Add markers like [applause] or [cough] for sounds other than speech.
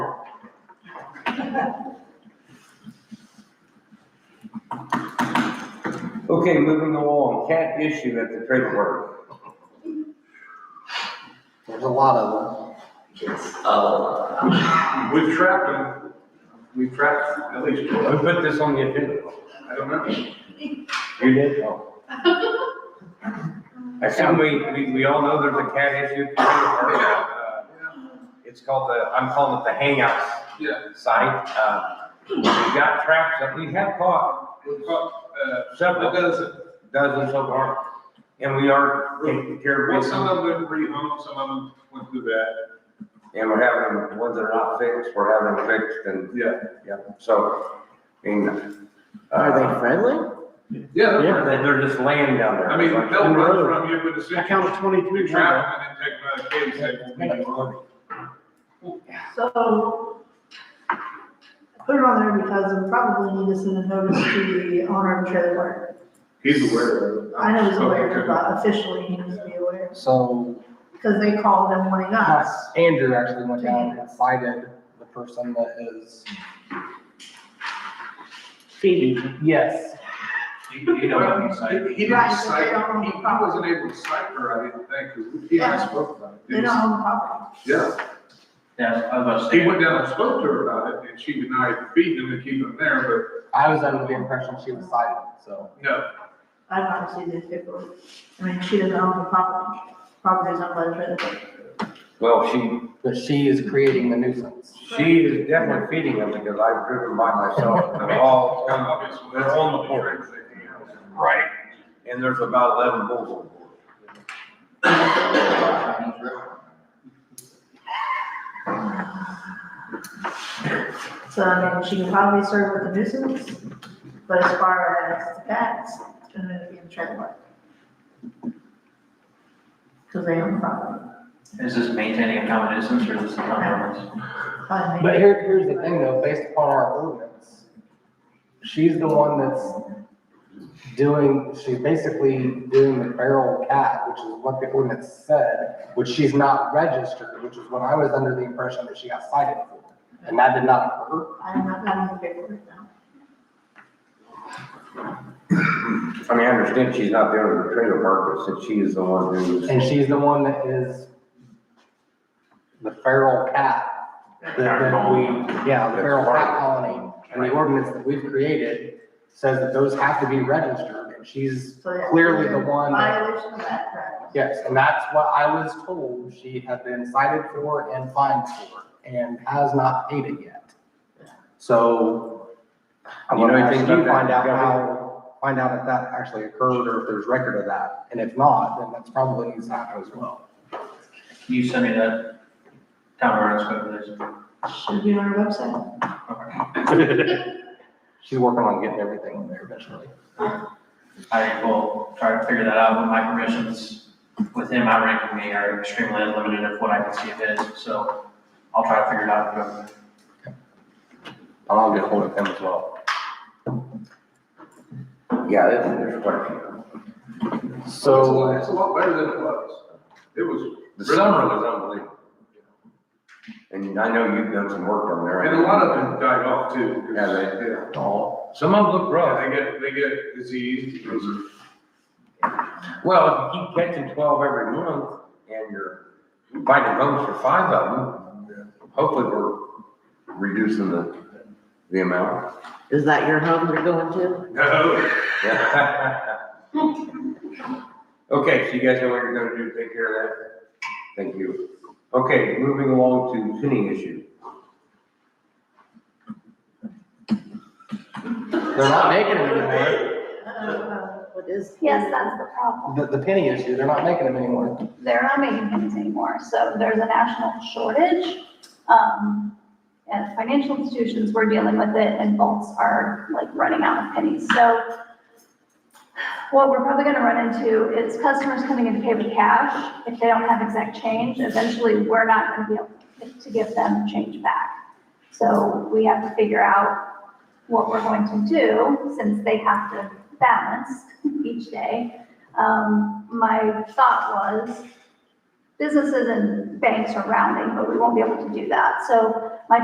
Okay, moving along, cat issue at the trailer park. There's a lot of them. Oh, We've trapped them, we've trapped at least Who one, put this on the agenda? I don't know. You did? [laughs] Oh. I assume we, we, we all know there's a cat issue. at the trailer park. Uh, It's called the, I'm calling it the hangout Yeah, site. Uh, We've got traps up, we have caught we've caught, uh, several a dozen, dozens so far, and we are taking care well, of some them. of them went home, some of them went to bed. And we're having, them- ones that are not fixed, we're having them fixed and, Yeah. yeah, so, I mean. uh, Are they friendly? Yeah, that's Yeah, right. they- they're just laying down there. I mean, Like, they'll run from you, but as soon I as you counted twenty-three. trap them and then take them out of the cage, they won't leave you alone. So, I put it on there because we probably need to send a notice to the owner of the trailer park. He's aware of it. I know he's aware, Okay. but officially he needs to be aware, So, because they called him wanting uh, us. Andrew actually went down and cited the person that is. Feeding. Yes. you, you know what I'm saying? He didn't Right, so they cite, don't own he the he property. wasn't able to cite her, I didn't think, because he and I spoke about it. They don't own the property. Yeah, Yeah, I was he saying, went down and spoke to her about it, and she denied feeding them and keeping them there, I was under the impression she was cited, so. but no. I've not received this paperwork. I mean, she doesn't own the property. Property is owned by the trailer park. Well, she, But she is creating the nuisance. she is definitely feeding them because I've driven by myself. They're all, kind of- Obviously, they're on the porch. right, And there's about eleven bulls on board. So I mean, she can probably serve with the nuisance, but as far as the cats, it's gonna be in the trailer park. Because they own the property. is this maintaining a common nuisance or is this a common nuisance? Fine, they- But here, here's the thing though, based upon our ordinance, she's the one that's doing, she's basically doing the feral cat, which is what the ordinance said, which she's not registered, which is what I was under the impression that she got cited for. And that did not occur. I'm not having the paperwork now. I mean, I understand she's not there in the trailer park, but since she is the one who's. And she's the one that is the feral cat that, that we, yeah, the feral cat colony. And the ordinance that we've created says that those have to be registered, and she's So yeah, clearly the one that, Violation of that, correct? yes, and that's what I was told she had been cited for and fined for, and has not paid it yet. So, I'm You know gonna ask anything you about that, find out Gabby? how, find out if that actually occurred, or if there's record of that, and if not, then that's probably needs to happen as well. Can you send me that town ordinance code, please? Should be on our website. She's working on getting everything in there eventually. I will try to figure that out, but my permissions with him outranking me are extremely limited of what I can see of his, so I'll try to figure it out. And I'll get hold of him as well. Yeah, there's, there's quite a few. So, uh, It's a lot better than it was. It was, The summer was unbelievable. And I know you've done some work down there. and a lot of them died off too. 'cause- Yeah, they- yeah. oh, Some of them look rough. Yeah, they get, they get diseased, [laughs] because of- Well, if you keep catching twelve every month and you're finding homes for five of them, hopefully we're reducing the, the amount. [laughs] Is that your home you're going to? no. Okay, so you guys know what you're gonna do, take care of that? Thank you. Okay, moving along to penny issue. they're not making them anymore. Uh, What is? Yes, that's the problem. The, the penny issue, they're not making them anymore. They're not making pennies anymore, so there's a national shortage. Um, and financial institutions were dealing with it and vaults are like running out of pennies. So what we're probably gonna run into is customers coming in to pay with cash. If they don't have exact change, eventually we're not gonna be able to give them change back. So we have to figure out what we're going to do since they have to balance each day um, my thought was businesses and banks are rounding, but we won't be able to do that. So